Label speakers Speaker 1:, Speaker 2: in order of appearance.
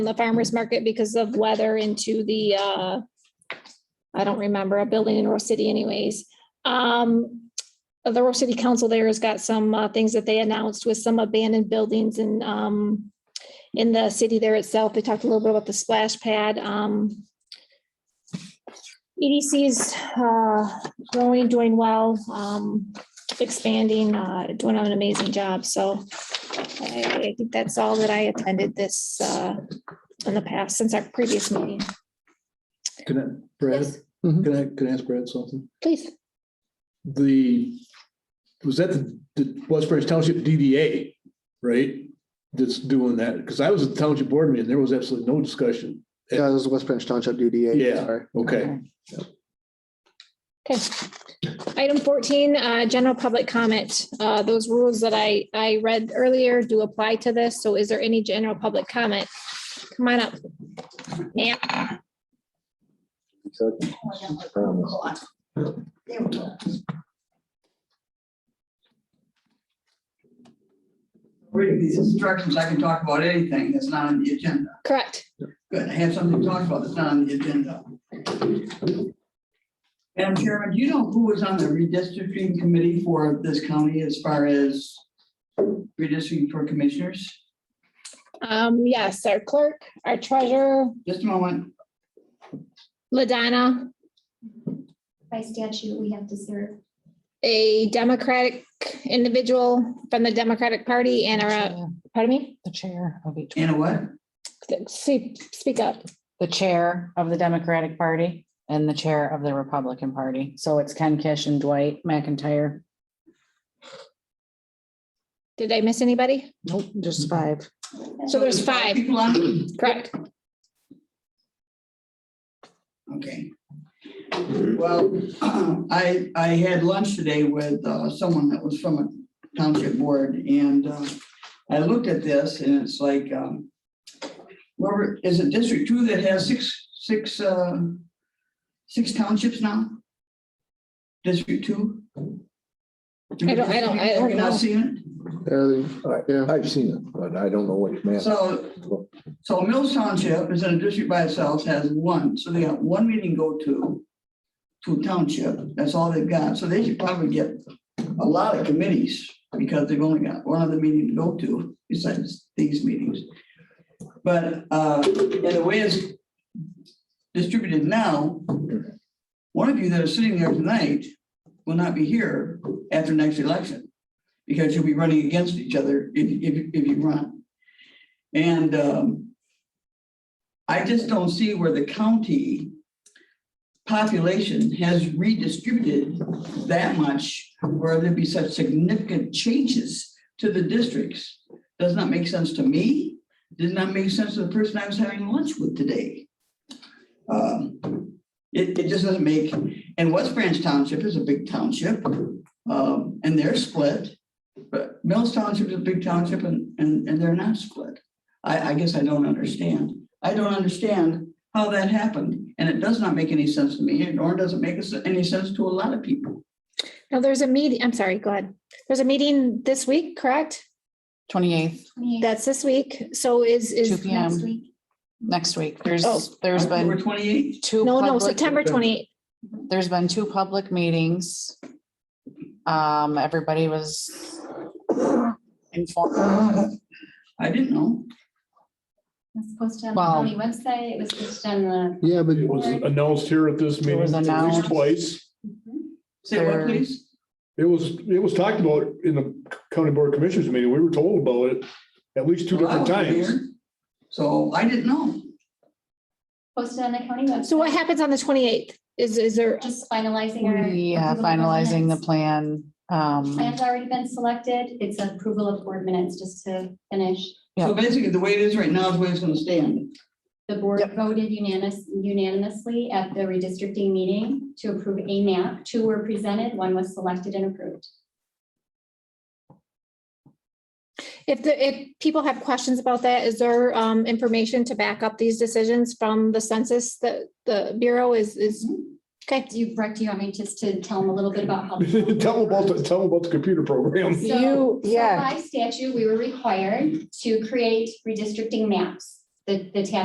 Speaker 1: the farmer's market because of weather into the, uh, I don't remember, a building in Rose City anyways. Um, the Rose City Council there has got some, uh, things that they announced with some abandoned buildings and, um, in the city there itself, they talked a little bit about the splash pad, um, E EDC's, uh, growing, doing well, um, expanding, uh, doing an amazing job, so I I think that's all that I attended this, uh, in the past, since our previous meeting.
Speaker 2: Can I, Brad,
Speaker 3: Mhm.
Speaker 2: can I, can I ask Brad something?
Speaker 1: Please.
Speaker 2: The, was that the, the Westbury Township DDA, right? That's doing that, because I was at the township board meeting, there was absolutely no discussion.
Speaker 3: Yeah, this is West Branch Township DDA.
Speaker 2: Yeah.
Speaker 3: sorry.
Speaker 2: Okay,
Speaker 1: Okay. Item fourteen, uh, general public comment. Uh, those rules that I, I read earlier do apply to this. So is there any general public comment? Come on up. Yeah,
Speaker 4: Reading these instructions, I can talk about anything that's not on the agenda.
Speaker 1: correct.
Speaker 4: Good, I have something to talk about that's not on the agenda. Madam Chairman, do you know who was on the redistricting committee for this county as far as redistricting for commissioners?
Speaker 1: Um, yes, our clerk, our treasurer,
Speaker 4: Just a moment.
Speaker 1: LaDonna,
Speaker 5: By statute, we have to serve.
Speaker 1: a Democratic individual from the Democratic Party and our, uh,
Speaker 6: chair-
Speaker 1: pardon me,
Speaker 6: The chair of each,
Speaker 4: Anna what?
Speaker 1: See, speak up.
Speaker 6: the chair of the Democratic Party and the chair of the Republican Party. So it's Ken Kish and Dwight McIntyre.
Speaker 1: Did I miss anybody?
Speaker 6: Nope, just five.
Speaker 1: So there's five.
Speaker 4: People on,
Speaker 1: Correct.
Speaker 4: okay. Well, I, I had lunch today with uh, someone that was from a township board and uh, I looked at this and it's like, um, whoever, is it District Two that has six, six, uh, six townships now? District Two?
Speaker 1: I don't- I don't- I don't
Speaker 4: You're not
Speaker 1: know.
Speaker 4: seeing
Speaker 3: There they- Yeah.
Speaker 7: I've seen it, but I don't know which
Speaker 4: it?
Speaker 7: map.
Speaker 4: So So Mills Township is in a district by itself, has one, so they got one meeting go to, to township, that's all they've got, so they should probably get a lot of committees, because they've only got one other meeting to go to, besides these meetings. But, uh, in the way it's distributed now, one of you that are sitting there tonight will not be here after next election, because you'll be running against each other if, if, if you run. And um, I just don't see where the county population has redistributed that much, where there'd be such significant changes to the districts. Does not make sense to me, did not make sense to the person I was having lunch with today. Um, It, it just doesn't make, and West Branch Township is a big township, um, and they're split. But Mills Township is a big township and, and, and they're not split. I, I guess I don't understand. I don't understand how that happened, and it does not make any sense to me, and nor does it make us- any sense to a lot of people.
Speaker 1: No, there's a meeting, I'm sorry, go ahead. There's a meeting this week, correct?
Speaker 6: Twenty-eighth,
Speaker 5: 28
Speaker 1: That's this week. So is,
Speaker 6: two
Speaker 1: is,
Speaker 6: P
Speaker 5: Next
Speaker 6: M,
Speaker 5: week,
Speaker 6: next week.
Speaker 1: Oh.
Speaker 6: There's, there's
Speaker 4: October
Speaker 6: been
Speaker 4: twenty-eighth,
Speaker 6: two.
Speaker 1: no, no,
Speaker 6: public-
Speaker 1: September twenty,
Speaker 6: There's been two public meetings. Um, everybody was
Speaker 1: Uh-huh.
Speaker 6: informed.
Speaker 4: I didn't know.
Speaker 5: it's posted on
Speaker 6: Wow.
Speaker 5: the county website, it was posted on the,
Speaker 3: Yeah, but
Speaker 2: it was announced here at this
Speaker 6: It
Speaker 2: meeting,
Speaker 6: was
Speaker 2: at least
Speaker 6: announced.
Speaker 2: twice.
Speaker 4: Say what,
Speaker 6: There-
Speaker 4: please?
Speaker 2: It was, it was talked about in the county board commissioners meeting, we were told about it at least two
Speaker 4: Well, I
Speaker 2: different
Speaker 4: wasn't
Speaker 2: times.
Speaker 4: here, So I didn't know.
Speaker 5: posted on the county website.
Speaker 1: so what happens on the twenty-eighth? Is, is there,
Speaker 5: Just finalizing our.
Speaker 6: Yeah,
Speaker 5: approval of our
Speaker 6: uh, finalizing the
Speaker 5: minutes.
Speaker 6: plan. Um,
Speaker 5: Plan's already been selected, it's approval of board minutes, just to finish.
Speaker 4: So
Speaker 6: Yeah.
Speaker 4: basically, the way it is right now is the way it's gonna stand.
Speaker 5: The board
Speaker 6: Yep.
Speaker 5: voted unanimous unanimously at the redistricting meeting to approve a map, two were presented, one was selected and approved.
Speaker 1: if the, if people have questions about that, is there, um, information to back up these decisions from the census that the Bureau is, is, okay?
Speaker 5: Do you, Brett, do you want me just to tell them a little bit about how?
Speaker 2: Tell them about, the tell them about the computer program.
Speaker 5: So-
Speaker 6: You-
Speaker 5: so
Speaker 6: yeah.
Speaker 5: By statute, we were required to create redistricting maps. The the, the task